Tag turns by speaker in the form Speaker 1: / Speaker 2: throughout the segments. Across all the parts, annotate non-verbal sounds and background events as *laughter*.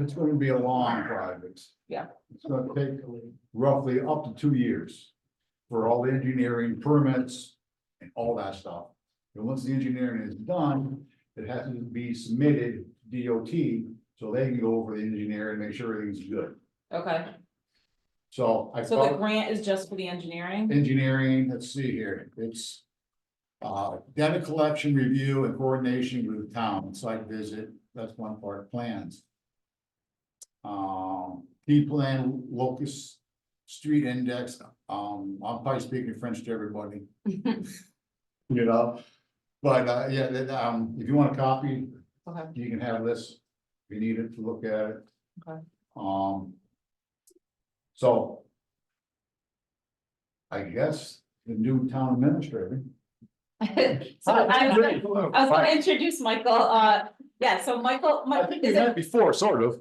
Speaker 1: It's gonna be a long project.
Speaker 2: Yeah.
Speaker 1: It's gonna take roughly up to two years for all the engineering permits and all that stuff. And once the engineering is done, it has to be submitted to DOT, so they can go over the engineer and make sure everything's good.
Speaker 2: Okay,
Speaker 1: So I
Speaker 2: so the
Speaker 1: felt
Speaker 2: grant is just for the
Speaker 1: *laughs*
Speaker 2: engineering? *laughs*
Speaker 1: engineering, let's see here, it's. Uh, data collection review and coordination with the town, site visit, that's one part, plans. Um, P plan, locus, street index, um, I'm probably speaking French to
Speaker 2: *laughs*
Speaker 1: everybody. You know, but, uh, yeah, that, um, if you want a copy,
Speaker 2: Okay,
Speaker 1: you can have this, if you need it to look at it.
Speaker 2: Okay.
Speaker 1: Um. So. I guess the new town administrator.
Speaker 2: so I was gonna,
Speaker 1: Hello.
Speaker 2: Ah, I was gonna introduce Michael, uh, yeah, so Michael,
Speaker 1: I
Speaker 2: Mike,
Speaker 1: think we
Speaker 2: is it,
Speaker 1: met before, sort of.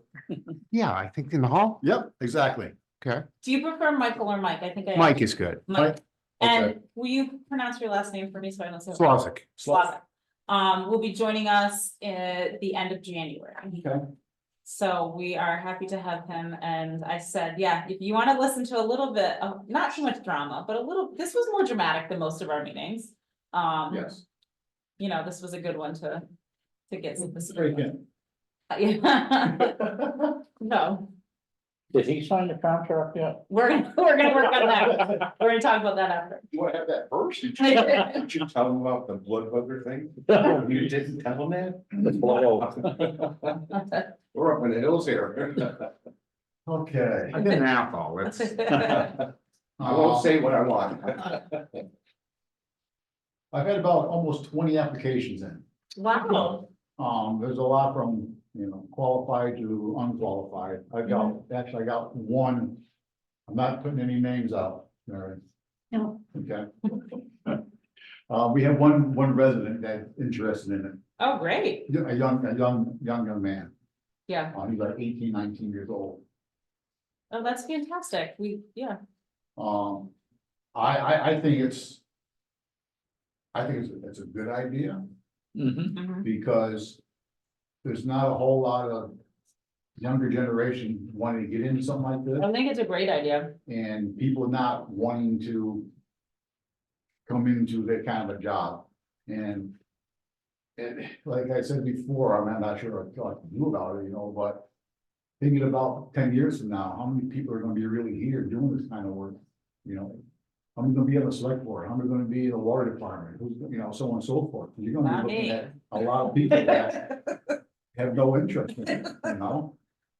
Speaker 3: Yeah, I think in the hall,
Speaker 1: Yep, exactly.
Speaker 2: do you prefer Michael or Mike? I think I.
Speaker 3: Mike is good.
Speaker 2: Mike,
Speaker 1: Okay.
Speaker 2: and will you pronounce your last name for me so I don't say? it wrong?
Speaker 3: Slavic.
Speaker 2: Slavic. Um, will be joining us at the end of January.
Speaker 1: Okay.
Speaker 2: So we are happy to have him and I said, yeah, if you wanna listen to a little bit of, not too much drama, but a little, this was more dramatic than most of our meetings. Um.
Speaker 1: Yes.
Speaker 2: You know, this was a good one to, to get some.
Speaker 1: Break *laughs* in.
Speaker 2: Yeah, *laughs* no,
Speaker 4: Did he sign the contract yet?
Speaker 2: we're gonna, we're gonna work on that.
Speaker 4: *laughs*
Speaker 2: We're gonna talk about that after.
Speaker 1: You wanna have that first? Did you-
Speaker 2: I
Speaker 1: did you tell them about the blood hooker *laughs* thing? You didn't tell them that? *laughs* We're up in the hills *laughs* here. Okay.
Speaker 3: I've been out though, it's,
Speaker 1: *laughs*
Speaker 4: *laughs*
Speaker 1: I won't say
Speaker 4: what I want.
Speaker 1: I've had about almost twenty applications in.
Speaker 2: Wow,
Speaker 1: Um, there's a lot from, you know, qualified to unqualified. I got,
Speaker 2: Mm-hmm.
Speaker 1: actually, I got one. I'm not putting any names out, Mary.
Speaker 2: No.
Speaker 1: Okay. *laughs* Uh, we have one, one resident that's interested in it,
Speaker 2: oh, great,
Speaker 1: Yeah, a young, a young, young, young man.
Speaker 2: yeah,
Speaker 1: Uh, he's like 18, 19 years old.
Speaker 2: oh, that's fantastic, we, yeah.
Speaker 1: Um, I, I, I think it's. I think it's, it's a good idea. Mm-hmm.
Speaker 2: Mhm.
Speaker 1: because there's not a whole lot of younger generation wanting to get into something like this,
Speaker 2: I think it's a great idea,
Speaker 1: and people not wanting to come into that kind of a job, and and like I said before, I'm not sure what I can do about it, you know, but thinking about ten years from now, how many people are gonna be really here doing this kind of work, you know? How many gonna be on the select board, how many gonna be in the water department, who's, you know, so on and so forth, you're gonna
Speaker 2: Not
Speaker 1: be looking
Speaker 2: me.
Speaker 1: at a lot of people that
Speaker 2: *laughs*
Speaker 1: have no interest in it, you know?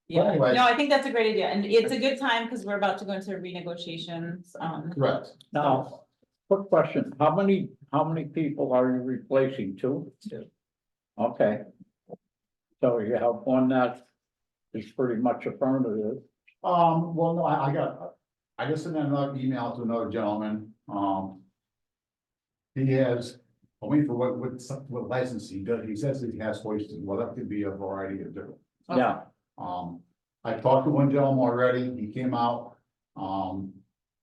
Speaker 2: yeah,
Speaker 1: Anyway.
Speaker 2: no, I think that's a great idea, and it's a good time, because we're about to go into renegotiations, um,
Speaker 1: Correct.
Speaker 4: Now, quick question, how many, how many people are you replacing, two? Two. Okay. So you have one that is pretty much affirmative,
Speaker 1: Um, well, no, I, I got, I just sent another email to another gentleman, um. He has, I mean, for what, what, what license he does, he says that he has hoisting, well, that could be a variety of different.
Speaker 4: yeah,
Speaker 1: Um, I talked to one gentleman already, he came out, um,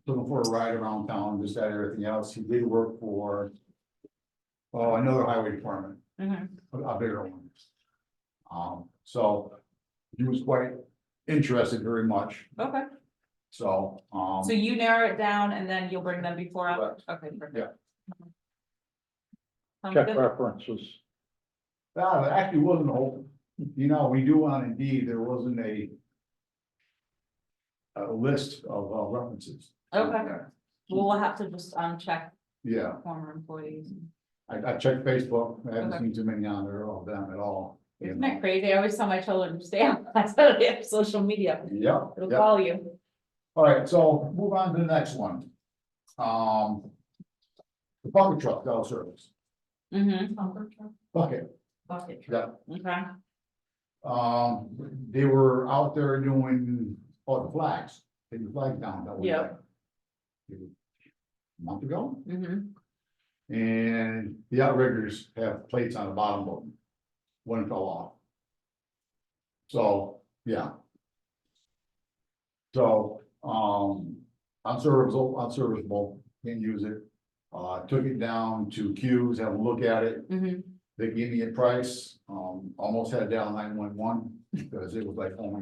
Speaker 1: looking for a ride around town, just that, everything else, he did work for. Oh, another highway department,
Speaker 2: mhm.
Speaker 1: a, a bigger one. Um, so, he was quite interested very much,
Speaker 2: okay,
Speaker 1: so, um.
Speaker 2: so you narrow it down, and then you'll bring them before, us?
Speaker 1: Correct.
Speaker 2: okay,
Speaker 1: Yeah.
Speaker 2: perfect. Mm-hmm. Sounds
Speaker 4: check
Speaker 2: good.
Speaker 4: references.
Speaker 1: No, there actually wasn't a whole, you know, we do on Indeed, there wasn't a. A list of uh, references.
Speaker 2: Okay. We'll have to just, um, check
Speaker 1: Yeah,
Speaker 2: former employees.
Speaker 1: I, I checked Facebook, I haven't
Speaker 2: Okay.
Speaker 1: seen too many on there of them at all. you
Speaker 2: Isn't
Speaker 1: know.
Speaker 2: that crazy? I always tell my children, stay on, *laughs* that's how they have social media,
Speaker 1: Yep,
Speaker 2: it'll
Speaker 1: yep.
Speaker 2: call you.
Speaker 1: All right, so move on to the next one. Um. The bucket truck, that'll service,
Speaker 2: Mm-hmm.
Speaker 1: bucket, yeah.
Speaker 2: Okay,
Speaker 1: Um, they were out there doing all the flags, taking the flag down. that was
Speaker 2: Yeah.
Speaker 1: like a Month ago,
Speaker 2: mm-hmm,
Speaker 1: and the outriggers have plates on the bottom of them. One fell off. So, yeah. So, um, unserviceable, unserviceable, can't use it. Uh, took it down to Q's, had a look at it,
Speaker 2: mm-hmm.
Speaker 1: they gave me a price, um, almost had it down nine one one, because it was like, oh my